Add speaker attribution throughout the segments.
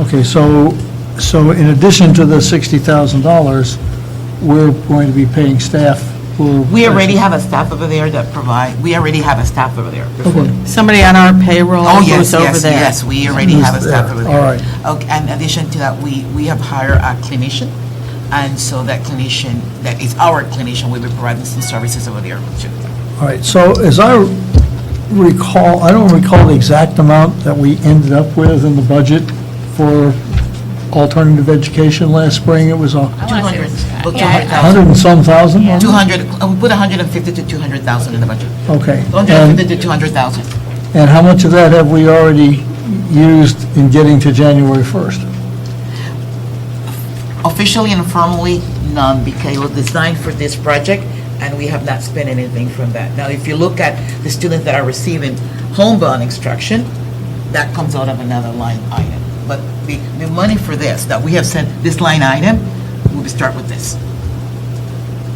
Speaker 1: Okay, so, so in addition to the $60,000, we're going to be paying staff for...
Speaker 2: We already have a staff over there that provide, we already have a staff over there.
Speaker 1: Okay,
Speaker 3: Somebody on our payroll
Speaker 2: Oh, yes,
Speaker 3: who's over
Speaker 2: yes,
Speaker 3: there.
Speaker 2: yes, we already have a
Speaker 1: Who's
Speaker 2: staff
Speaker 1: there?
Speaker 2: over
Speaker 1: All
Speaker 2: there.
Speaker 1: right.
Speaker 2: Okay, and in addition to that, we, we have hired a clinician, and so that clinician, that is our clinician, will be providing some services over there too.
Speaker 1: all right, so as I recall, I don't recall the exact amount that we ended up with in the budget for alternative education last spring, it was a
Speaker 2: Two hundred, about two
Speaker 4: Yeah, I-
Speaker 2: hundred
Speaker 1: hundred
Speaker 2: thousand.
Speaker 1: and some thousand?
Speaker 2: Two hundred, uh, we put a hundred and fifty to two hundred thousand in the budget.
Speaker 1: Okay.
Speaker 2: Hundred and
Speaker 1: And,
Speaker 2: fifty to two hundred thousand.
Speaker 1: and how much of that have we already used in getting to January 1st?
Speaker 2: Officially and formally, none, because it was designed for this project, and we have not spent anything from that. Now, if you look at the students that are receiving homebound instruction, that comes out of another line item. But the, the money for this, that we have sent, this line item, we will start with this.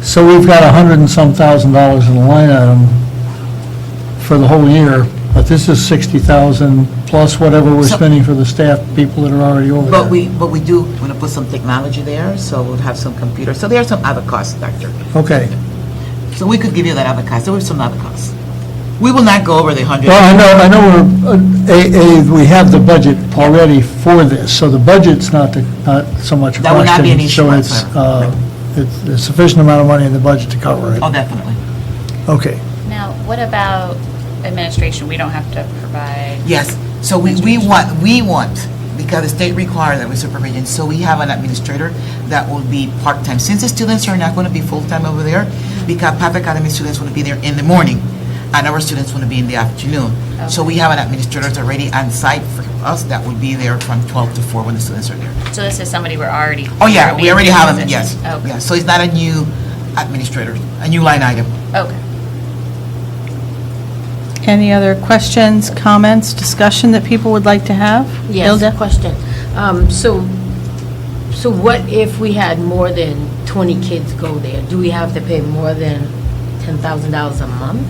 Speaker 1: So we've got a hundred and some thousand dollars in the line item for the whole year, but this is 60,000 plus whatever we're
Speaker 2: So-
Speaker 1: spending for the staff people that are already over there.
Speaker 2: But we, but we do want to put some technology there, so we'll have some computers. So there are some other costs, Doctor.
Speaker 1: Okay.
Speaker 2: So we could give you that other cost, there were some other costs. We will not go over the hundred.
Speaker 1: Well, I know, I know we're, uh, A, A, we have the budget already for this, so the budget's not, the- not so much a question.
Speaker 2: That would not be an issue
Speaker 1: So it's,
Speaker 2: whatsoever.
Speaker 1: uh, it's there's sufficient amount of money in the budget to cover it.
Speaker 2: Oh, definitely.
Speaker 1: Okay.
Speaker 4: Now, what about administration? We don't have to provide.
Speaker 2: Yes, so we, we want, we want, because the state requires that we supervision, so we have an administrator that will be part-time. Since the students are not going to be full-time over there, because Papa Academy students want to be there in the morning, and our students want to be in the afternoon. So we have an administrator that's already on site for us that will be there from 12 to 4 when the students are there.
Speaker 4: So this is somebody we're already.
Speaker 2: Oh, yeah, we already have them,
Speaker 4: Okay.
Speaker 2: yes.
Speaker 4: Okay.
Speaker 2: yes. So it's not a new administrator, a new line item.
Speaker 4: Okay.
Speaker 3: Any other questions, comments, discussion that people would like to have?
Speaker 5: Yes,
Speaker 3: Hilda?
Speaker 5: question. Um, So, so what if we had more than 20 kids go there? Do we have to pay more than $10,000 a month?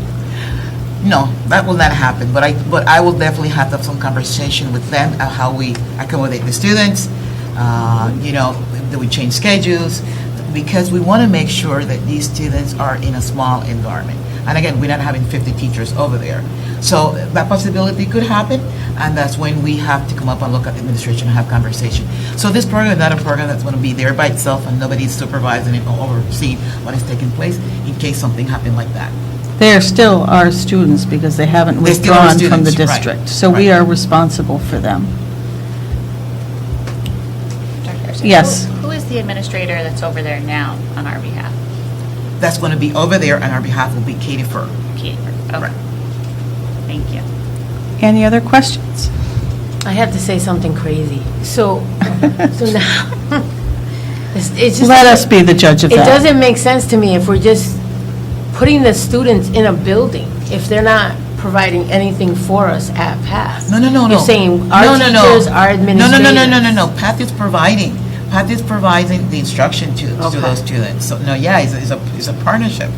Speaker 2: No, that will not happen, but I, but I will definitely have to have some conversation with them of how we accommodate the students, uh, you know, do we change schedules? Because we want to make sure that these students are in a small environment. And again, we're not having 50 teachers over there. So that possibility could happen, and that's when we have to come up and look at the administration and have conversation. So this program is not a program that's going to be there by itself and nobody's supervising it or overseeing what is taking place in case something happened like that.
Speaker 3: They are still our students because they haven't
Speaker 2: They're still our
Speaker 3: withdrawn from the
Speaker 2: students, right,
Speaker 3: district. So we
Speaker 2: right.
Speaker 3: are responsible for them.
Speaker 4: Dr. Garcia,
Speaker 3: Yes.
Speaker 4: who- Who is the administrator that's over there now on our behalf?
Speaker 2: that's going to be over there on our behalf will be Katie Fur.
Speaker 4: Katie. Okay. Thank you.
Speaker 3: Any other questions?
Speaker 5: I have to say something crazy. So, so now, it's it's just...
Speaker 3: Let us be the judge of
Speaker 5: It
Speaker 3: that.
Speaker 5: doesn't make sense to me if we're just putting the students in a building, if they're not providing anything for us at PATH.
Speaker 2: No, no, no, no.
Speaker 5: You're saying
Speaker 2: No, no,
Speaker 5: our
Speaker 2: no.
Speaker 5: teachers, our administrators.
Speaker 2: No, no, no, no, no, no, no. Path is providing, Path is providing the instruction to, to
Speaker 5: Okay.
Speaker 2: those students. So, no, yeah, it's, it's a, it's a partnership,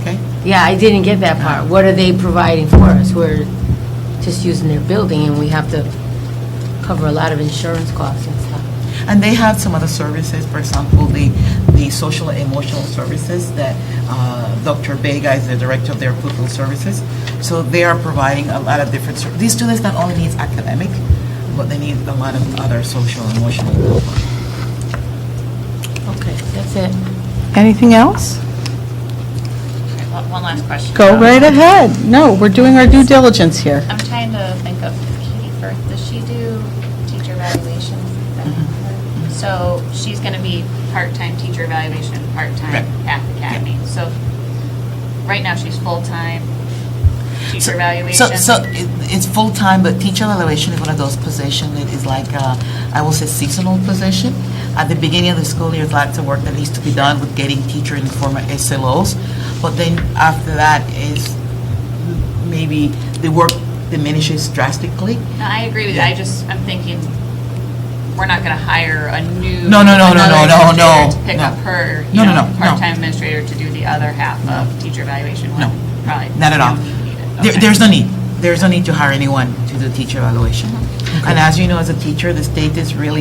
Speaker 2: okay?
Speaker 5: Yeah, I didn't get that part. What are they providing for us? We're just using their building, and we have to cover a lot of insurance costs and stuff.
Speaker 2: And they have some other services, for example, the, the social and emotional services that uh, Dr. Vega is the director of their pupil services. So they are providing a lot of different, ser- these students not only need academic, but they need a lot of other social and emotional.
Speaker 5: Okay, that's it.
Speaker 3: Anything else?
Speaker 4: Okay, one- One last question.
Speaker 3: Go
Speaker 4: Um,
Speaker 3: right ahead. No, we're doing our due diligence here.
Speaker 4: I'm trying to think of Katie Firth. Does she do teacher evaluations?
Speaker 2: Mm-hmm.
Speaker 4: So she's going to be part-time teacher evaluation, and part-time at the academy. So right now, she's full-time teacher
Speaker 2: So,
Speaker 4: evaluation.
Speaker 2: so it- it's full-time, but teacher evaluation is one of those positions that is like, uh, I will say seasonal position. At the beginning of the school year, lots of work that needs to be done with getting teacher in the form of SLOs. But then after that is maybe the work diminishes drastically.
Speaker 4: No, I agree with you. I just, I'm thinking, we're not going to hire a new.
Speaker 2: No, no, no, no,
Speaker 4: another
Speaker 2: no, no,
Speaker 4: administrator
Speaker 2: no,
Speaker 4: To pick
Speaker 2: no.
Speaker 4: up her,
Speaker 2: No,
Speaker 4: you
Speaker 2: no,
Speaker 4: know,
Speaker 2: no, no.
Speaker 4: part-time administrator to do the other half of teacher evaluation. when
Speaker 2: No,
Speaker 4: probably
Speaker 2: Not at all.
Speaker 4: we don't need it.
Speaker 2: There-
Speaker 4: Okay.
Speaker 2: There's no need.
Speaker 4: Mm-hmm.
Speaker 2: There's no need to hire anyone to do teacher evaluation. And as you know, as a teacher, the state is really